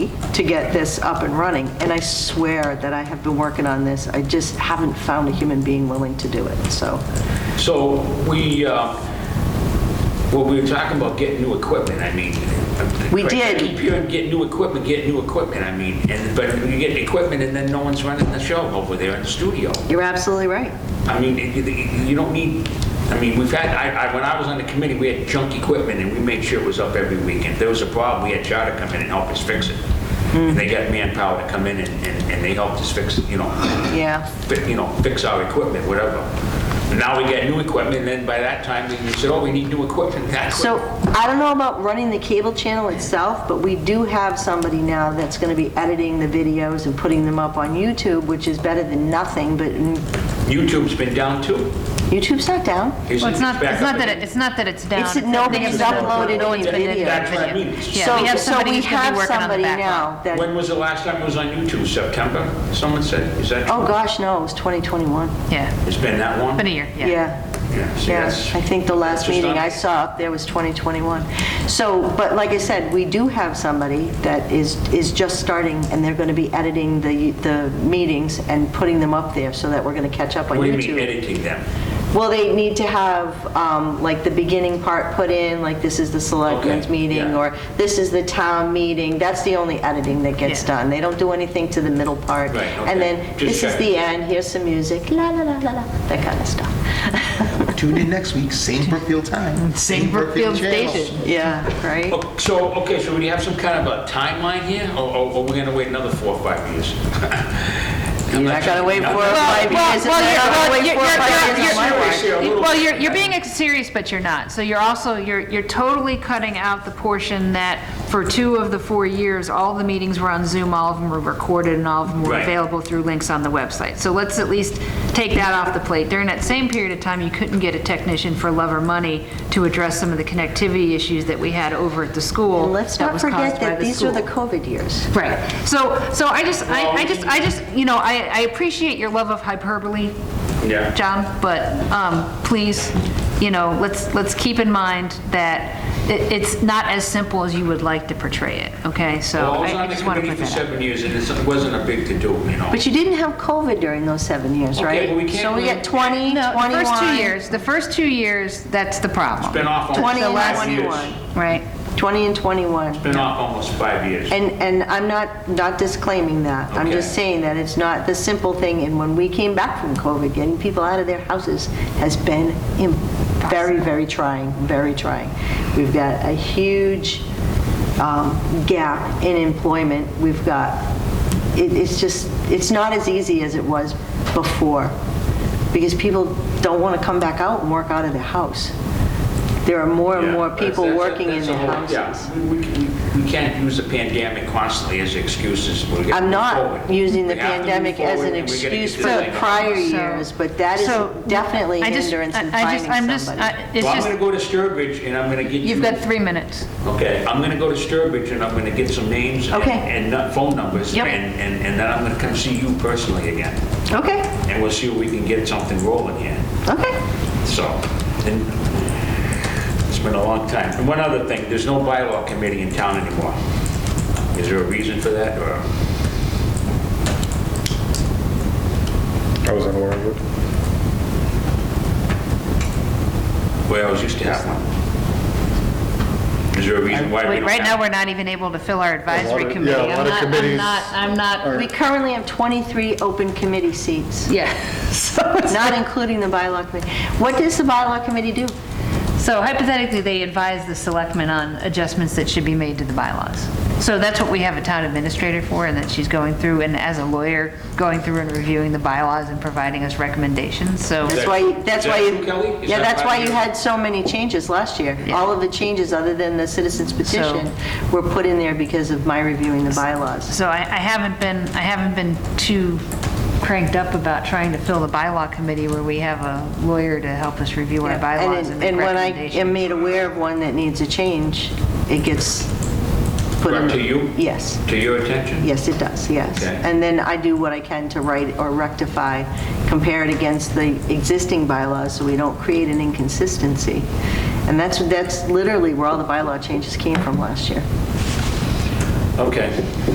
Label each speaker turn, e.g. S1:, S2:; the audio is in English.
S1: to get this up and running, and I swear that I have been working on this, I just haven't found a human being willing to do it, so.
S2: So we, uh, well, we were talking about getting new equipment, I mean.
S1: We
S2: Right, I
S1: did.
S2: Keep hearing, get new equipment, get new equipment, I mean, and, but you get the equipment and then no one's running the show over there in the studio.
S1: You're absolutely right.
S2: I mean, it- it- you don't need, I mean, we've had, I, I, when I was on the committee, we had junk equipment and we made sure it was up every weekend. If there was a problem, we had Charter come in and help us fix it.
S1: Hmm.
S2: And they got manpower to come in and, and and they helped us fix, it, you know,
S1: Yeah.
S2: fi- you know, fix our equipment, whatever. Now we got new equipment, and then by that time, we said, oh, we need new equipment, that
S1: So
S2: equipment.
S1: I don't know about running the cable channel itself, but we do have somebody now that's going to be editing the videos and putting them up on YouTube, which is better than nothing, but
S2: YouTube's been down too.
S1: YouTube's not down.
S2: Isn't
S3: Well, it's not,
S2: back up
S3: it's not that,
S2: again?
S3: it- it's not that it's down.
S1: It's that
S3: not that
S1: nobody's
S3: down.
S1: uploaded
S3: No one's
S1: any
S3: been in
S1: video.
S3: there.
S2: That's what I mean.
S3: Yeah, we have
S1: So-
S3: somebody who's gonna
S1: So
S3: be working on the
S1: we have somebody
S3: backlog.
S1: now that,
S2: When was the last time it was on YouTube? September, someone said? Is that,
S1: oh gosh, no, it was 2021.
S3: Yeah,
S2: it's been that long?
S3: been a year, yeah.
S1: Yeah,
S2: Yeah, see,
S1: yeah.
S2: that's-
S1: I think the last
S2: that's just
S1: meeting
S2: not-
S1: I saw up there was 2021. So, but like I said, we do have somebody that is, is just starting and they're going to be editing the, the meetings and putting them up there so that we're going to catch up on
S2: What do you
S1: YouTube.
S2: mean editing them?
S1: Well, they need to have, um, like, the beginning part put in, like, this is the selectmen's
S2: Okay,
S1: meeting,
S2: yeah.
S1: or this is the town meeting. That's the only editing that gets
S3: Yeah.
S1: done. They don't do anything to the middle part.
S2: Right, okay.
S1: And then,
S2: Just
S1: this is
S2: checking.
S1: the end, here's some music, la, la, la, la, la, that kind of stuff.
S4: Tune in next week, same Brookfield time.
S3: Same Brookfield
S4: channel.
S3: station.
S1: Yeah, right?
S2: Oh, So, okay, so do you have some kind of a timeline here, or or- or we're going to wait another four or five years? I'm
S1: You're not gonna wait
S2: I'm
S1: for
S2: not-
S1: it. Why? Because
S3: well,
S1: it's
S3: you're-
S1: not
S3: well,
S1: wait
S3: you're-
S1: for
S3: you're-
S1: five
S3: you're-
S1: years on my
S2: watch. Seriously, a little
S3: Well, you're,
S2: bit.
S3: you're being ex- serious, but you're not. So you're also, you're, you're totally cutting out the portion that for two of the four years, all the meetings were on Zoom, all of them were recorded, and all of them were
S2: Right.
S3: available through links on the website. So let's at least take that off the plate. During that same period of time, you couldn't get a technician for love or money to address some of the connectivity issues that we had over at the school.
S1: And let's
S3: that
S1: not
S3: was caused
S1: forget
S3: by
S1: that
S3: the
S1: these are
S3: school.
S1: the COVID years.
S3: Right. So, so I just, I,
S2: Well-
S3: I just, I just, you know, I, I appreciate your love of hyperbole.
S2: Yeah.
S3: John, but, um, please, you know, let's, let's keep in mind that it, it's not as simple as you would like to portray it, okay? So
S2: Well, I was
S3: I I
S2: on the
S3: just want to
S2: committee
S3: put
S2: for
S3: that out.
S2: seven years, and it wasn't a big to-do, you know?
S1: But you didn't have COVID during those seven years,
S2: Okay,
S1: right?
S2: but we can't
S1: So we
S2: really-
S1: got 20, 21.
S3: No, the first two years, the first two years, that's the
S2: Been
S3: problem,
S2: off almost
S1: 20 and
S2: five Oh, years.
S1: 21.
S3: right?
S1: 20 and 21.
S2: Been off almost five years.
S1: And, and I'm not, not disclaiming that. I'm just
S2: Okay.
S1: saying that it's not the simple thing, and when we came back from COVID, getting people out of their houses has been im- very, very trying, very trying. We've got a huge um, gap in employment. We've got, it- it's just, it's not as easy as it was before, because people don't want to come back out and work out of their house. There are more and
S2: Yeah,
S1: more
S2: that's-
S1: people
S2: that's a-
S1: working in
S2: that's a
S1: their
S2: whole-
S1: houses.
S2: yeah. We- We we- we can't use the pandemic constantly as excuses. We're gonna
S1: I'm
S2: move
S1: not
S2: forward.
S1: using the
S2: We have to move
S1: pandemic as
S2: forward,
S1: an
S2: and we're gonna
S1: excuse
S2: get
S1: for
S2: this
S1: the
S2: thing up.
S1: prior
S3: So-
S1: years, but that is
S3: so,
S1: definitely
S3: I
S1: a
S3: just-
S1: hindrance in
S3: I- I just- I'm
S1: finding
S3: just-
S1: somebody.
S3: I- It's
S2: Well, I'm
S3: just,
S2: going to go to Sturbridge, and I'm going to get you...
S3: you've got three minutes.
S2: Okay, I'm gonna go to Sturbridge and I'm gonna get some names and-
S1: Okay.
S2: and nu- phone numbers.
S3: Yep.
S2: And, and and then I'm gonna come see you personally again.
S1: Okay,
S2: And we'll see if we can get something rolling here.
S1: okay.
S2: So, and it's been a long time. And one other thing, there's no bylaw committee in town anymore. Is there a reason for that or?
S5: I was unaware of it.
S2: Well, I always used to have one. Is there a reason why we
S3: Wait,
S2: don't
S3: right now,
S2: have?
S3: we're not even able to fill our advisory
S5: of-
S3: committee.
S5: yeah,
S3: I'm
S5: a lot of
S3: not-
S5: committees
S3: I'm not, I'm not,
S1: We currently have 23 open committee seats,
S3: yeah. So it's-
S1: not including the bylaw committee. What does the bylaw committee do?
S3: So hypothetically, they advise the selectmen on adjustments that should be made to the bylaws. So that's what we have a town administrator for, and that she's going through, and as a lawyer, going through and reviewing the bylaws and providing us recommendations, so.
S1: That's why,
S2: Is
S1: that's
S2: that
S1: why,
S2: true, Kelly?
S1: you
S2: Is
S1: yeah,
S2: that
S1: that's
S2: part
S1: why
S2: of
S1: you
S2: your-
S1: had so many changes last year. All of the changes, other than the citizens petition, were put in there because of my reviewing the bylaws.
S3: So I, I haven't been, I haven't been too cranked up about trying to fill the bylaw committee where we have a lawyer to help us review our
S1: Yeah, and
S3: bylaws
S1: it-
S3: and make
S1: And when I am
S3: recommendations.
S1: made aware of one that needs a change, it gets put in.
S2: Brought to you?
S1: Yes,
S2: To your attention?
S1: yes, it does, yes.
S2: Okay.
S1: And then I do what I can to write or rectify, compare it against the existing bylaws, so we don't create an inconsistency. And that's, that's literally where all the bylaw changes came from last year.
S2: Okay.